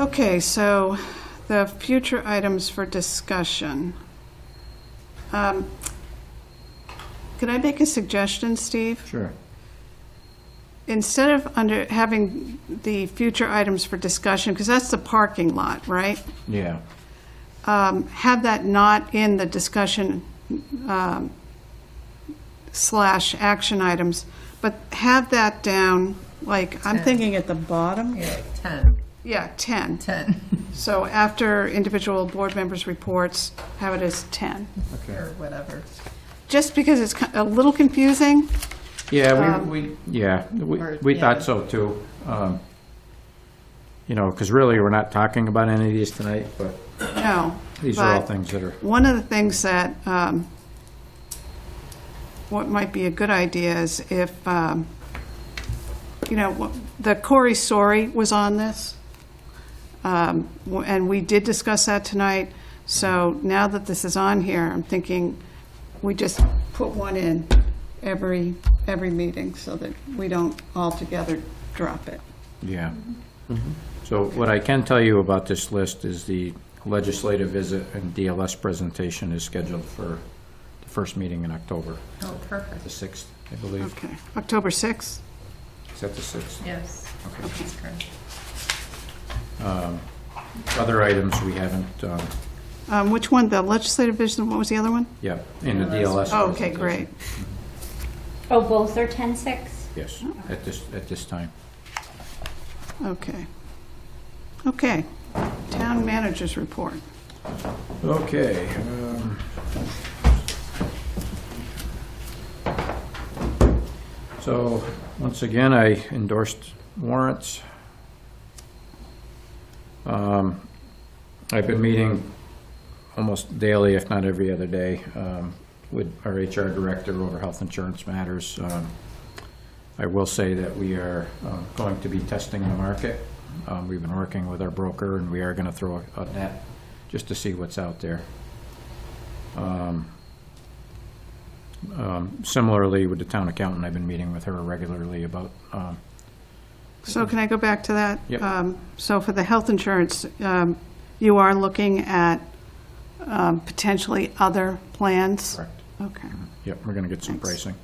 Okay, so the future items for discussion. Um, Could I make a suggestion, Steve? Sure. Instead of under, having the future items for discussion, because that's the parking lot, right? Yeah. Um, Have that not in the discussion um, slash action items, but have that down, like, I'm thinking at the bottom? Yeah, 10, Yeah, 10. 10, So after individual board members' reports, have it as 10. Okay. or whatever. Just because it's ki- a little confusing, Yeah, Um, we, we, yeah, we, or- we yeah. thought so too. Um, You know, because really, we're not talking about any of these tonight, but no. these are all but things that are, One of the things that, um, what might be a good idea is if, um, you know, wh- the Corey Sori was on this, um, w- and we did discuss that tonight, so now that this is on here, I'm thinking we just put one in every, every meeting so that we don't altogether drop it. yeah. So what I can tell you about this list is the legislative visit and DLS presentation is scheduled for the first meeting in October, Oh, the perfect, 6th, I believe. Okay, October 6th? Is that the 6th? yes. That's correct. Other items we haven't, um, Um, Which one, the legislative vision, what was the other one? yeah, in the DLS. Oh, okay, presentation. great. Oh, both are ten six? Yes, at this, at this time. Okay. Okay. Town managers report. Okay. um, So, once again, I endorsed warrants. Um, I've been meeting almost daily, if not every other day, um, with our HR director over health insurance matters. Um, I will say that we are um, going to be testing the market. Um, We've been working with our broker, and we are going to throw a net just to see what's out there. Um, um, Similarly, with the town accountant, I've been meeting with her regularly about, um, So can I go back to that? Yep. Um, So for the health insurance, um, you are looking at um, potentially other plans? correct, Okay. yep, we're going to get some Thanks. pricing,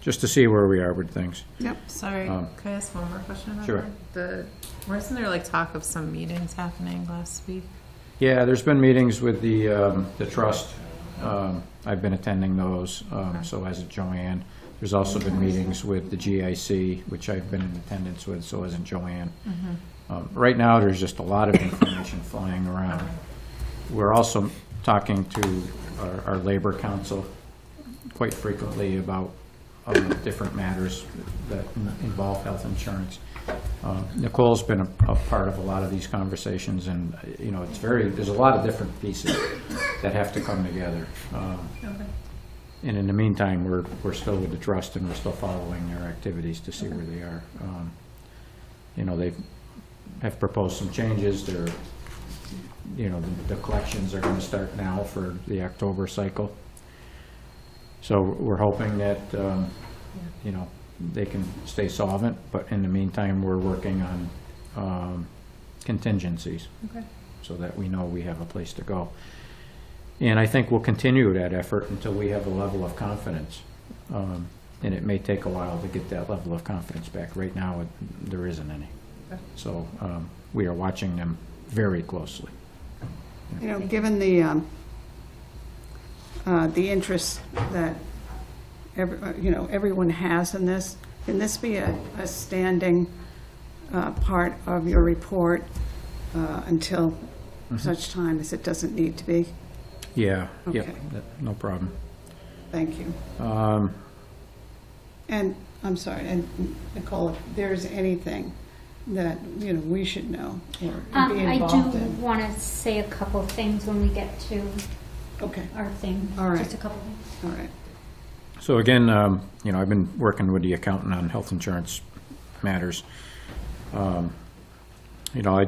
just to see where we are with things. Sorry, Um, can I ask one more question about Sure. that? The, wasn't there like talk of some meetings happening last week? Yeah, there's been meetings with the, um, the trust. Um, I've been attending those, um, so has Joanne. There's also been meetings with the GIC, which I've been in attendance with, so hasn't Joanne. Um, Right now, there's just a lot of information flying around. We're also talking to our, our labor council quite frequently about uh, different matters that involve health insurance. Um, Nicole's been a, a part of a lot of these conversations, and, uh, you know, it's very, there's a lot of different pieces that have to come together. Um, And in the meantime, we're, we're still with the trust, and we're still following their activities to see where they are. Um, You know, they have proposed some changes, they're, you know, the- the collections are gonna start now for the October cycle. So we're hoping that, um, you know, they can stay solvent, but in the meantime, we're working on um, contingencies. Okay. So that we know we have a place to go. And I think we'll continue that effort until we have a level of confidence. Um, And it may take a while to get that level of confidence back. Right now, it- there isn't any. Okay. So um, we are watching them very closely. You know, given the, um, uh, the interest that, every- uh, you know, everyone has in this, can this be a a standing uh, part of your report uh, until Mm-hmm. such time as it doesn't need to be? Yeah, yep, yep, Okay. no problem. Um, Thank you. And, I'm sorry, and Nicole, if there's anything that, you know, we should know or be Um, I involved do in? wanna say a couple things when we get to Okay, our thing. All right. Just a couple things. all right. So again, um, you know, I've been working with the accountant on health insurance matters. Um, You know, I,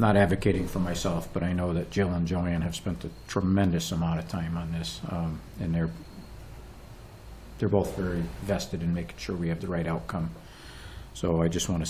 not advocating for myself, but I know that Jill and Joanne have spent a tremendous amount of time on this, um, and they're, they're both very vested in making sure we have the right outcome. So I just want to